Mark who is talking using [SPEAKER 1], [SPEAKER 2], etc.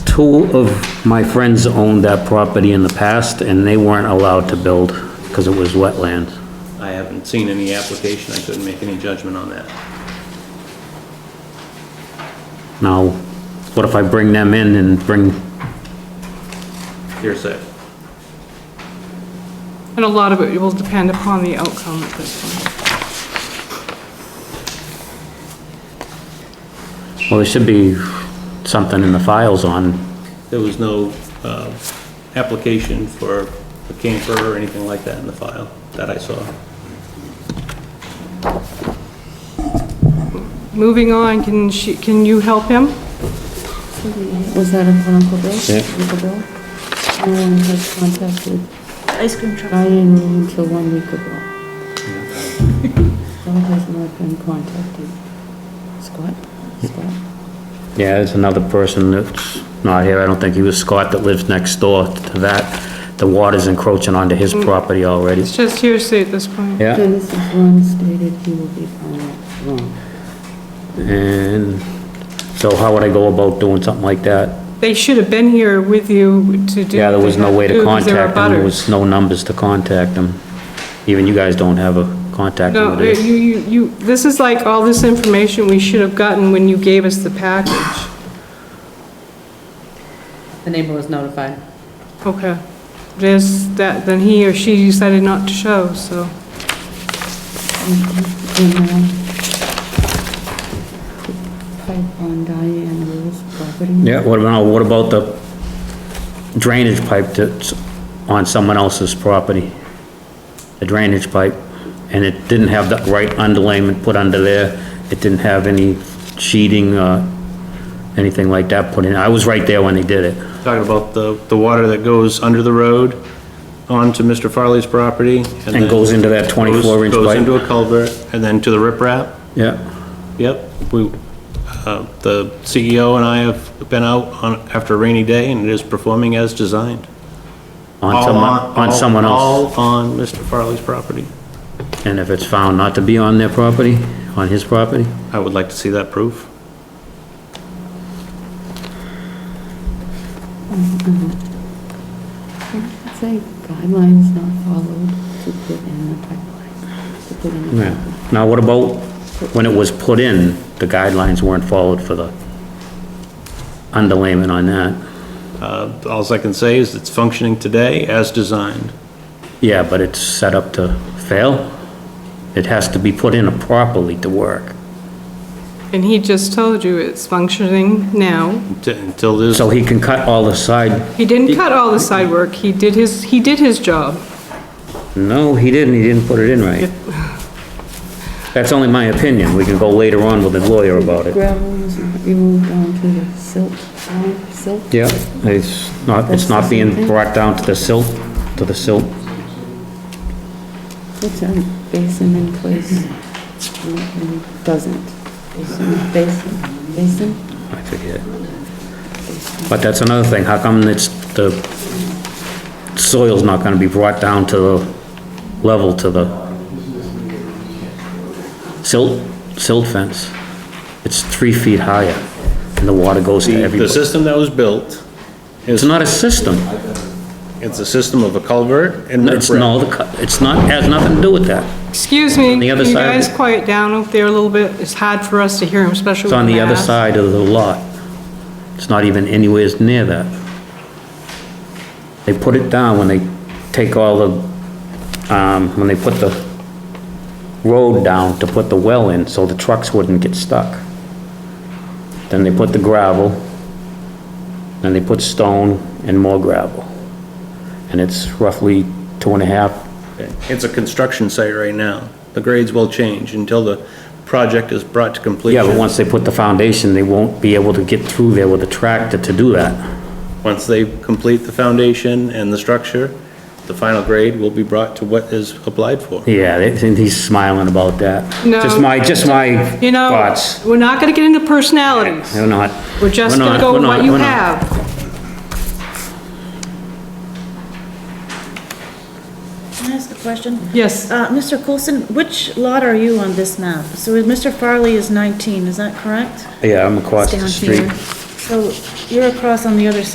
[SPEAKER 1] two of my friends owned that property in the past, and they weren't allowed to build because it was wetland.
[SPEAKER 2] I haven't seen any application, I couldn't make any judgment on that.
[SPEAKER 1] Now, what if I bring them in and bring,
[SPEAKER 2] Hearsay.
[SPEAKER 3] And a lot of it will depend upon the outcome at this point.
[SPEAKER 1] well, there should be something in the files on,
[SPEAKER 2] There was no, uh, application for a camper or anything like that in the file that I saw.
[SPEAKER 3] Moving on, can she, can you help him?
[SPEAKER 4] Was that an Uncle Bill?
[SPEAKER 1] Yeah.
[SPEAKER 4] Uncle Bill? No one has contacted
[SPEAKER 5] Ice cream truck.
[SPEAKER 4] Diane until one week ago. Bill has not been contacted. Scott? Scott?
[SPEAKER 1] yeah, there's another person that's not here, I don't think he was Scott that lives next door to that. The water's encroaching onto his property already.
[SPEAKER 3] It's just hearsay at this point.
[SPEAKER 1] Yeah,
[SPEAKER 4] Dennis is one stated he will be found wrong.
[SPEAKER 1] and so how would I go about doing something like that?
[SPEAKER 3] They should have been here with you to do.
[SPEAKER 1] Yeah, there
[SPEAKER 3] what
[SPEAKER 1] was
[SPEAKER 3] they
[SPEAKER 1] no
[SPEAKER 3] had
[SPEAKER 1] way to
[SPEAKER 3] do 'cause they were
[SPEAKER 1] contact them, there
[SPEAKER 3] abutters.
[SPEAKER 1] was no numbers to contact them. Even you guys don't have a contact
[SPEAKER 3] No,
[SPEAKER 1] number. do you?
[SPEAKER 3] you, you, you, this is like all this information we should have gotten when you gave us the package.
[SPEAKER 6] The neighbor was notified.
[SPEAKER 3] Okay. There's that, then he or she decided not to show, so.
[SPEAKER 4] And, uh, pipe on Diane Lewis property.
[SPEAKER 1] Yeah, what about, what about the drainage pipe that's on someone else's property? The drainage pipe, and it didn't have the right underlayment put under there, it didn't have any sheeting, uh, anything like that put in, I was right there when they did it.
[SPEAKER 2] Talking about the, the water that goes under the road onto Mr. Farley's property.
[SPEAKER 1] And
[SPEAKER 2] then
[SPEAKER 1] goes into that
[SPEAKER 2] goes-
[SPEAKER 1] 24 inch
[SPEAKER 2] Goes
[SPEAKER 1] pipe.
[SPEAKER 2] into a culvert and then to the riprap.
[SPEAKER 1] Yeah,
[SPEAKER 2] Yep, we, uh, the CEO and I have been out on, after a rainy day, and it is performing as designed.
[SPEAKER 1] on
[SPEAKER 2] All
[SPEAKER 1] someone,
[SPEAKER 2] all-
[SPEAKER 1] on someone else,
[SPEAKER 2] All on Mr. Farley's property.
[SPEAKER 1] and if it's found not to be on their property, on his property,
[SPEAKER 2] I would like to see that proof.
[SPEAKER 4] It's like guidelines not followed to put in the pipeline, to put in the
[SPEAKER 1] yeah. Now, what about when it was put in, the guidelines weren't followed for the underlayment on that?
[SPEAKER 2] Uh, Alls I can say is it's functioning today as designed.
[SPEAKER 1] Yeah, but it's set up to fail. It has to be put in properly to work.
[SPEAKER 3] And he just told you it's functioning now.
[SPEAKER 2] Unti- Until this,
[SPEAKER 1] So he can cut all the side,
[SPEAKER 3] He didn't cut all the side work. He did his, he did his job.
[SPEAKER 1] no, he didn't, he didn't put it in right. That's only my opinion, we can go later on with the lawyer about it.
[SPEAKER 4] Gravel was not removed onto the silt, um, silt.
[SPEAKER 1] Yeah, it's not, it's not being brought down to the silt, to the silt.
[SPEAKER 4] It's a basin in place, and it doesn't. Basin, basin, basin.
[SPEAKER 1] I forget. But that's another thing, how come it's, the soil's not gonna be brought down to the level to the silt, silt fence? It's three feet higher, and the water goes to
[SPEAKER 2] the the
[SPEAKER 1] everybody.
[SPEAKER 2] system that was built,
[SPEAKER 1] It's not a system,
[SPEAKER 2] it's a system of a culvert and
[SPEAKER 1] it's,
[SPEAKER 2] riprap.
[SPEAKER 1] no, the cu- it's not, has nothing to do with that.
[SPEAKER 3] Excuse me,
[SPEAKER 1] the
[SPEAKER 3] can
[SPEAKER 1] other
[SPEAKER 3] you
[SPEAKER 1] side of
[SPEAKER 3] guys
[SPEAKER 1] it.
[SPEAKER 3] quiet down up there a little bit? It's hard for us to hear him, especially
[SPEAKER 1] It's
[SPEAKER 3] with
[SPEAKER 1] on the other
[SPEAKER 3] masks.
[SPEAKER 1] side of the lot. It's not even anywhere near that. They put it down when they take all the, um, when they put the road down to put the well in, so the trucks wouldn't get stuck. Then they put the gravel, then they put stone and more gravel. And it's roughly two and a half,
[SPEAKER 2] It's a construction site right now. The grades will change until the project is brought to completion.
[SPEAKER 1] yeah, but once they put the foundation, they won't be able to get through there with a tractor to do that.
[SPEAKER 2] Once they complete the foundation and the structure, the final grade will be brought to what is applied for.
[SPEAKER 1] Yeah, they- and he's smiling about that.
[SPEAKER 3] No.
[SPEAKER 1] Just my, just my
[SPEAKER 3] You know,
[SPEAKER 1] thoughts.
[SPEAKER 3] we're not gonna get into personalities.
[SPEAKER 1] They're not.
[SPEAKER 3] We're just
[SPEAKER 1] we're
[SPEAKER 3] gonna
[SPEAKER 1] not-
[SPEAKER 3] go
[SPEAKER 1] we're
[SPEAKER 3] with
[SPEAKER 1] not-
[SPEAKER 3] what you
[SPEAKER 1] we're not.
[SPEAKER 3] have.
[SPEAKER 5] Can I ask a question?
[SPEAKER 3] Yes,
[SPEAKER 5] Uh, Mr. Coulson, which lot are you on this map? So Mr. Farley is 19, is that correct?
[SPEAKER 1] Yeah, I'm across
[SPEAKER 5] It's
[SPEAKER 1] the
[SPEAKER 5] down
[SPEAKER 1] street.
[SPEAKER 5] here. So you're across on the other side